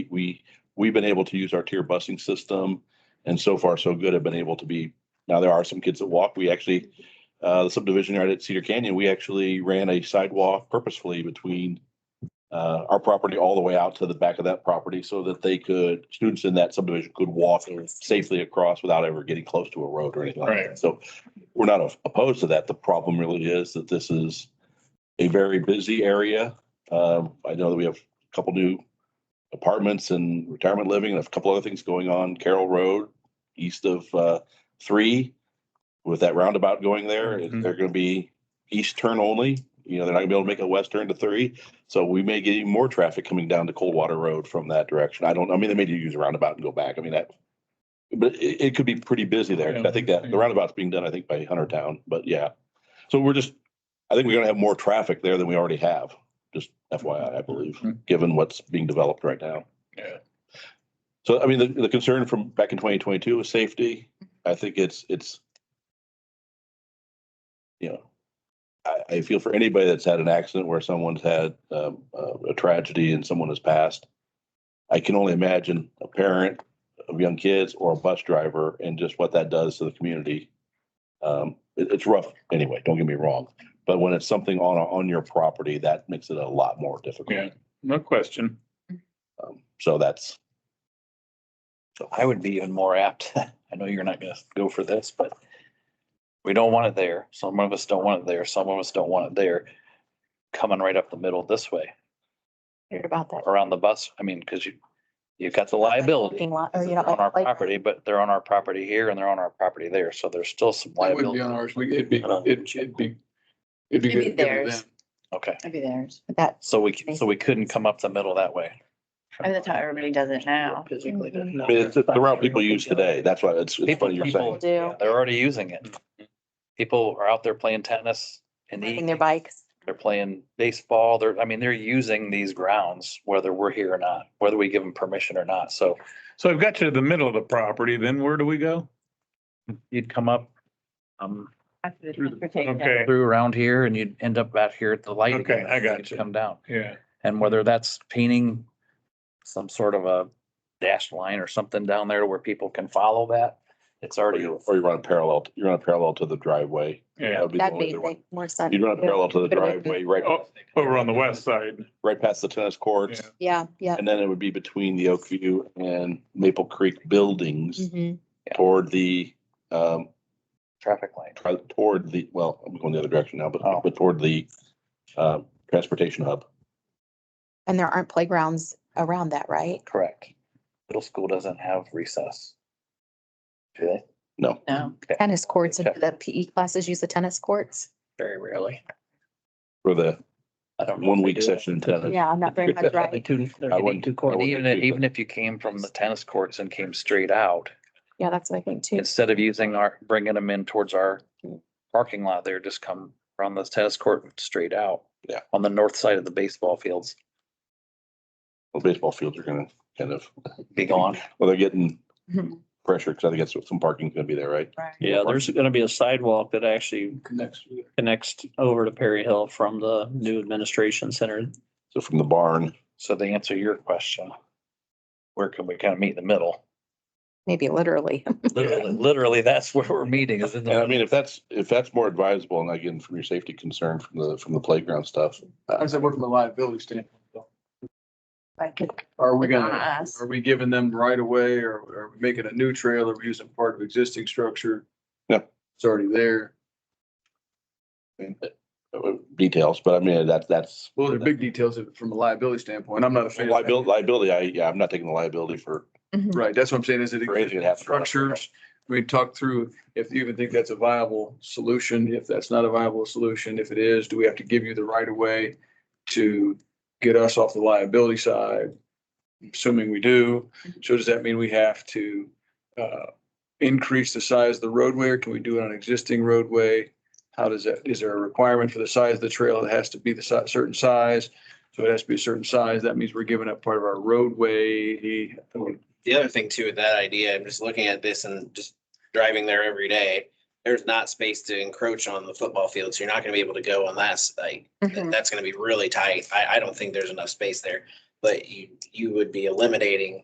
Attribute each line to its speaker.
Speaker 1: We, we've been able to use our tier busing system and so far so good have been able to be, now there are some kids that walk. We actually, uh, the subdivision right at Cedar Canyon, we actually ran a sidewalk purposefully between uh, our property all the way out to the back of that property so that they could, students in that subdivision could walk safely across without ever getting close to a road or anything like that. So we're not opposed to that. The problem really is that this is a very busy area. Um, I know that we have a couple new apartments and retirement living and a couple other things going on Carroll Road, east of uh, three. With that roundabout going there,
Speaker 2: Mhm.
Speaker 1: they're going to be east turn only. You know, they're not going to be able to make a west turn to three. So we may get even more traffic coming down to Coldwater Road from that direction. I don't, I mean, they may use a roundabout and go back. I mean, that. But it, it could be pretty busy there. I think that the roundabout's being done, I think, by Hunter Town, but yeah. So we're just, I think we're gonna have more traffic there than we already have, just FYI, I believe, given what's being developed right now.
Speaker 2: Yeah.
Speaker 1: So I mean, the, the concern from back in twenty twenty-two was safety. I think it's, it's. You know, I, I feel for anybody that's had an accident where someone's had, um, uh, a tragedy and someone has passed. I can only imagine a parent of young kids or a bus driver and just what that does to the community. Um, it- it's rough anyway, don't get me wrong, but when it's something on, on your property, that makes it a lot more
Speaker 2: Yeah,
Speaker 1: difficult.
Speaker 2: no question.
Speaker 1: Um, So that's,
Speaker 3: I would be even more apt. I know you're not gonna go for this, but we don't want it there. Some of us don't want it there. Some of us don't want it there. Coming right up the middle this way,
Speaker 4: Heard about that.
Speaker 3: around the bus. I mean, because you, you've got the liability.
Speaker 4: Parking lot, or
Speaker 3: They're
Speaker 4: you
Speaker 3: On our
Speaker 4: know, like,
Speaker 3: property, but they're on our property here and they're on our property there. So there's still some
Speaker 5: That wouldn't be
Speaker 3: liability.
Speaker 5: on ours. We, it'd be,
Speaker 3: Uh,
Speaker 5: it'd it'd be. It'd
Speaker 6: It'd be
Speaker 5: be good. to give it
Speaker 6: theirs.
Speaker 5: them.
Speaker 3: Okay,
Speaker 6: That'd be theirs.
Speaker 4: that's.
Speaker 3: so we, c- so we couldn't come up the middle that way.
Speaker 6: I mean, that's how everybody does it now.
Speaker 4: physically does
Speaker 1: I mean, it's the route people use today. That's why it's, it's
Speaker 3: People-
Speaker 1: funny you're
Speaker 3: people-
Speaker 1: saying.
Speaker 4: Do,
Speaker 3: They're already using it.
Speaker 5: Mm-hmm.
Speaker 3: People are out there playing tennis in the
Speaker 4: riding their
Speaker 3: evening.
Speaker 4: bikes.
Speaker 3: They're playing baseball. They're, I mean, they're using these grounds, whether we're here or not, whether we give them permission or not. So
Speaker 2: So I've got you to the middle of the property, then where do we go?
Speaker 3: you'd come up, um,
Speaker 2: Okay,
Speaker 3: through around here and you'd end up out here at the light.
Speaker 2: Okay,
Speaker 3: again,
Speaker 2: I got
Speaker 3: you'd
Speaker 2: you.
Speaker 3: Come down.
Speaker 2: yeah,
Speaker 3: And whether that's painting some sort of a dashed line or something down there where people can follow that, it's
Speaker 1: Or
Speaker 3: already.
Speaker 1: you, or you run a parallel, you run a parallel to the driveway.
Speaker 2: yeah.
Speaker 1: That'd be the
Speaker 4: That'd
Speaker 1: only
Speaker 4: be
Speaker 1: other one.
Speaker 4: like more sense.
Speaker 1: You'd run a parallel to the
Speaker 4: But it would be-
Speaker 1: driveway, right,
Speaker 2: Oh, Over on the west side.
Speaker 1: right past the tennis courts.
Speaker 2: Yeah.
Speaker 4: Yeah, yeah.
Speaker 1: And then it would be between the Oakview and Maple Creek buildings
Speaker 4: Mhm.
Speaker 1: toward the, um,
Speaker 3: Traffic light.
Speaker 1: try- toward the, well, I'm going the other direction now, but,
Speaker 3: Oh.
Speaker 1: but toward the, uh, transportation hub.
Speaker 4: And there aren't playgrounds around that, right?
Speaker 3: Correct. Middle school doesn't have recess. Do they?
Speaker 1: No,
Speaker 6: No.
Speaker 4: Tennis courts, and
Speaker 3: Yeah.
Speaker 4: the PE classes use the tennis courts.
Speaker 3: Very rarely.
Speaker 1: for the
Speaker 3: I don't. know if
Speaker 1: one
Speaker 3: they
Speaker 1: week
Speaker 3: do.
Speaker 1: session in tennis.
Speaker 4: Yeah, not very much, right?
Speaker 3: Two, they're
Speaker 1: I
Speaker 3: hitting
Speaker 1: wouldn't-
Speaker 3: two
Speaker 1: I
Speaker 3: courts.
Speaker 1: wouldn't
Speaker 3: Even, if-
Speaker 1: do that.
Speaker 3: even if you came from the tennis courts and came straight out,
Speaker 4: Yeah, that's what I think too.
Speaker 3: instead of using our, bringing them in towards our parking lot there, just come from the tennis court and straight out.
Speaker 1: Yeah.
Speaker 3: On the north side of the baseball fields,
Speaker 1: Well, baseball fields are gonna kind of,
Speaker 3: be gone.
Speaker 1: well, they're getting
Speaker 4: Mhm.
Speaker 1: pressure, because I think that's what some parking's gonna be there, right?
Speaker 7: Yeah, there's gonna be a sidewalk that actually
Speaker 5: Connects to it.
Speaker 7: connects over to Perry Hill from the new administration center.
Speaker 1: So from the barn,
Speaker 3: So to answer your question, where can we kind of meet in the middle?
Speaker 4: Maybe literally.
Speaker 3: Literally, literally, that's where we're meeting is in
Speaker 1: and I
Speaker 3: the,
Speaker 1: mean, if that's, if that's more advisable, and again, from your safety concern, from the, from the playground stuff,
Speaker 5: I said, we're from a liability standpoint. though.
Speaker 6: Like,
Speaker 5: Are we
Speaker 6: It's on
Speaker 5: gonna,
Speaker 6: us.
Speaker 5: are we giving them right away or are we making a new trail? Are we using part of existing structure?
Speaker 1: Yeah.
Speaker 5: It's already there.
Speaker 1: uh, details, but I mean, that, that's.
Speaker 5: Well, they're big details of- from a liability standpoint. I'm not a fan. of that.
Speaker 1: Liability, liability, I, yeah, I'm not taking the liability for,
Speaker 5: Right, that's what I'm saying is it
Speaker 1: For anything that happens.
Speaker 5: structures. We talked through if you even think that's a viable solution, if that's not a viable solution, if it is, do we have to give you the right of way to get us off the liability side? Assuming we do, so does that mean we have to uh increase the size of the roadway or can we do it on existing roadway? How does that, is there a requirement for the size of the trail? It has to be the si- certain size. So it has to be a certain size. That means we're giving up part of our roadway.
Speaker 8: the other thing too with that idea, I'm just looking at this and just driving there every day. There's not space to encroach on the football field, so you're not gonna be able to go on that. s- Like,
Speaker 6: Mhm.
Speaker 8: that's gonna be really tight. I, I don't think there's enough space there. But you, you would be eliminating